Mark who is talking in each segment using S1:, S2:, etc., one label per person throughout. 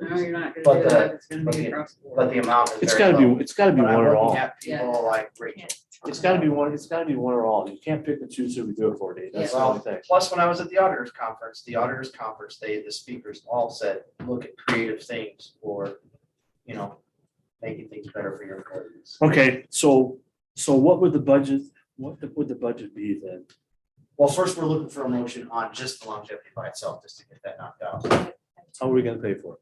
S1: No, you're not
S2: But
S1: gonna do
S2: the-
S1: that. It's gonna
S2: but
S1: be
S2: the-
S1: across the
S2: but
S1: board.
S2: the amount is
S3: It's
S2: very
S3: gotta be,
S2: low.
S3: it's gotta be
S2: When I'm
S3: one or
S2: looking
S3: all.
S2: at People like Rachel.
S3: It's gotta be one, it's gotta be one or all. You can't pick and choose who we do it for, Dave. That's the
S2: Yeah.
S3: only thing.
S2: Plus, when I was at the auditors conference, the auditors conference, they, the speakers all said, look at creative things or, you know, making things better for your employees.
S3: Okay, so, so what would the budget, what the- would the budget be then?
S2: Well, first, we're looking for a motion on just the longevity by itself, just to get that knocked out.
S3: How are we gonna pay for it?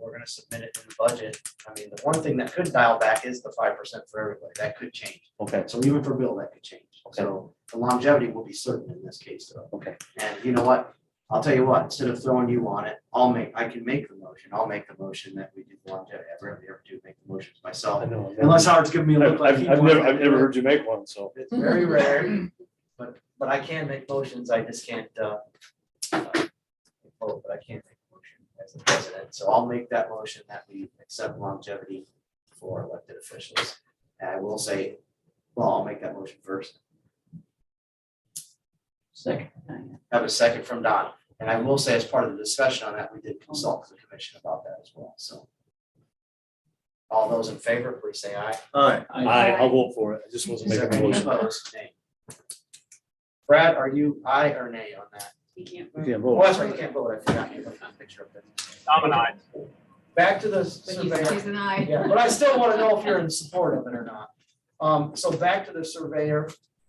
S2: We're gonna submit it in the budget. I mean, the one thing that could dial back is the five percent for everybody. That could change.
S3: Okay,
S2: So even for Bill, that could change. So the longevity will be certain in this case though.
S3: okay.
S2: And you know what? I'll tell you what, instead of throwing you on it, I'll make, I can make the motion. I'll make the motion that we do the longevity. I rarely ever do make the motions myself.
S3: know.
S2: Unless Howard's giving me a look
S3: I've,
S2: like.
S3: I've
S2: he
S3: I've
S2: wants
S3: never,
S2: to
S3: I've
S2: do
S3: never
S2: it.
S3: heard you make one, so.
S2: It's very rare, but, but I can make motions. I just can't, uh, uh, vote, but I can't make a motion as the president. So I'll make that motion that we accept longevity for elected officials. And I will say, well, I'll make that motion first.
S1: Second.
S2: Have a second from Don. And I will say, as part of the discussion on that, we did consult with the commission about that as well, so. All those in favor, please say aye.
S3: Alright. I, I'll vote for it. I just wasn't
S2: Is there
S3: making a
S2: any
S3: motion.
S2: opposed? Nay. Brad, are you aye or nay on that?
S1: He can't
S3: You
S1: vote.
S3: can't
S2: Oh,
S3: vote.
S2: that's right, you can't vote, I forgot. you have a picture of this.
S4: I'm an eye.
S2: Back to the
S1: But he's,
S2: surveyor.
S1: he's an eye.
S2: Yeah, but I still want to know if you're in support of it or not. Um, so back to the surveyor,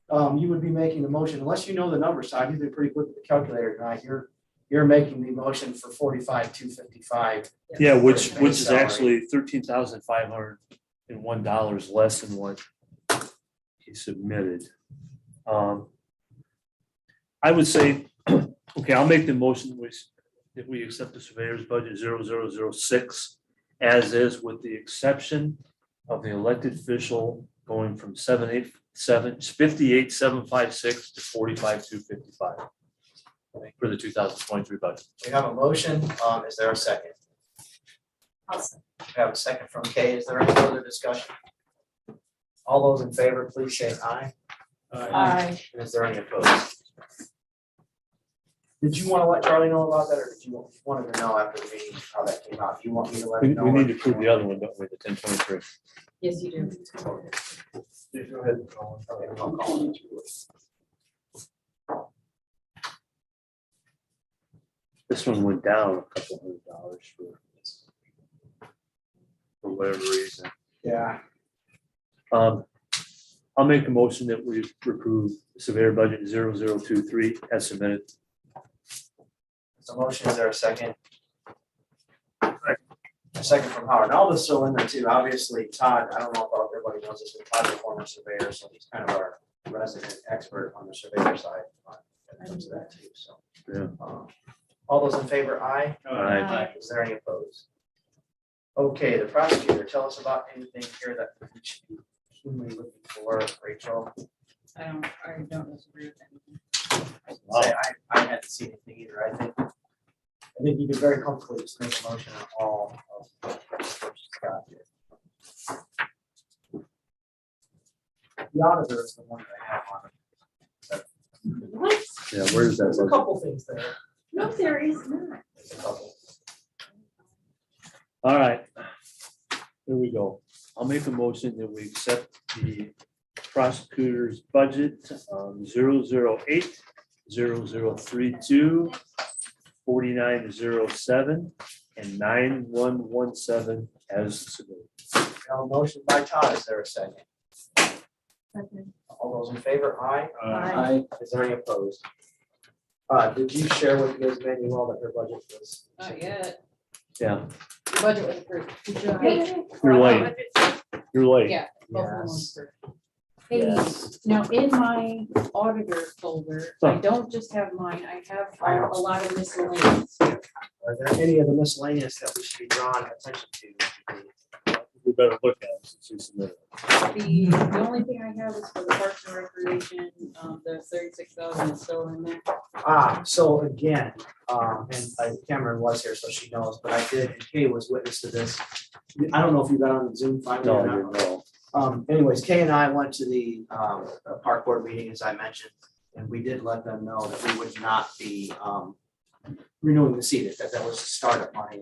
S2: um, you would be making the motion, unless you know the numbers, so I do it pretty quick with the calculator tonight, you're, you're making the motion for forty-five, two fifty-five.
S3: Yeah, which,
S2: Base
S3: which is
S2: salary.
S3: actually thirteen thousand five hundred and one dollars less than what he submitted. Um, I would say, okay, I'll make the motion which, if we accept the surveyor's budget zero zero zero six as is, with the exception of the elected official going from seven eight seven, fifty-eight, seven five six to forty-five, two fifty-five for the two thousand twenty-three budget.
S2: We have a motion, um, is there a second? We have a second from Kay, is there any further discussion? All those in favor, please say aye.
S1: Aye.
S2: And Is there any opposed? Did you want to let Charlie know about that, or did you want him to know after the meeting how that came out? Do you want me to let
S3: We,
S2: him know?
S3: we need to prove the other one, don't we, the ten twenty-three?
S1: Yes, you do.
S2: Go ahead. and call him. Okay, I'll call him.
S3: This one went down a couple hundred dollars for. For whatever reason.
S2: Yeah,
S3: Um, I'll make a motion that we approve severe budget zero zero two three as submitted.
S2: so motion, is there a second? A second from Howard, and I'll just throw in there too, obviously Todd, I don't know if everybody knows this, but Todd's a former surveyor, so he's kind of our resident expert on the surveyor side. uh, When it comes to that too, so.
S3: Yeah.
S2: Um, All those in favor, aye?
S3: Aye.
S2: Is there any opposed? Okay, the prosecutor, tell us about anything here that we should be keenly looking for, Rachel.
S1: I don't, I don't disagree with anything.
S2: I can say I, I haven't seen anything either, I think. I think you could very comfortably just make a motion on all of. what she's got here. The auditor is the one that I have on. it.
S1: What?
S3: Yeah, where is
S2: There's a
S3: that?
S2: couple things there.
S1: No, there is not.
S2: There's a couple.
S3: All right. There we go. I'll make a motion that we accept the prosecutor's budget, um, zero zero eight, zero zero three two, forty-nine zero seven, and nine one one seven as submitted.
S2: Now, a motion by Todd, is there a second? All those in favor, aye?
S1: Aye.
S2: Is there any opposed? Uh, did you share with Ms. Manuel that her budget was?
S1: Not yet.
S3: Yeah,
S1: The Budget was approved.
S3: you're late, you're late.
S1: Yeah. both of them
S2: Yes.
S1: was approved.
S5: Hey, now in my auditor folder, I don't just have mine, I have um, a lot of miscellaneous.
S2: Are there any of the miscellaneous that we should be drawing attention to?
S3: We better look at it since you submitted.
S1: The, the only thing I have is for the Parks and Recreation, um, the thirty-six thousand is still in there.
S2: Ah, so again, um, and uh, Cameron was here, so she knows, but I did, and Kay was witness to this. I don't know if you got on Zoom finally
S3: No,
S2: or
S3: I
S2: not.
S3: didn't know.
S2: Um, anyways, Kay and I went to the, um, uh, park board meeting, as I mentioned, and we did let them know that we would not be, um, renewing the seat, that that was startup money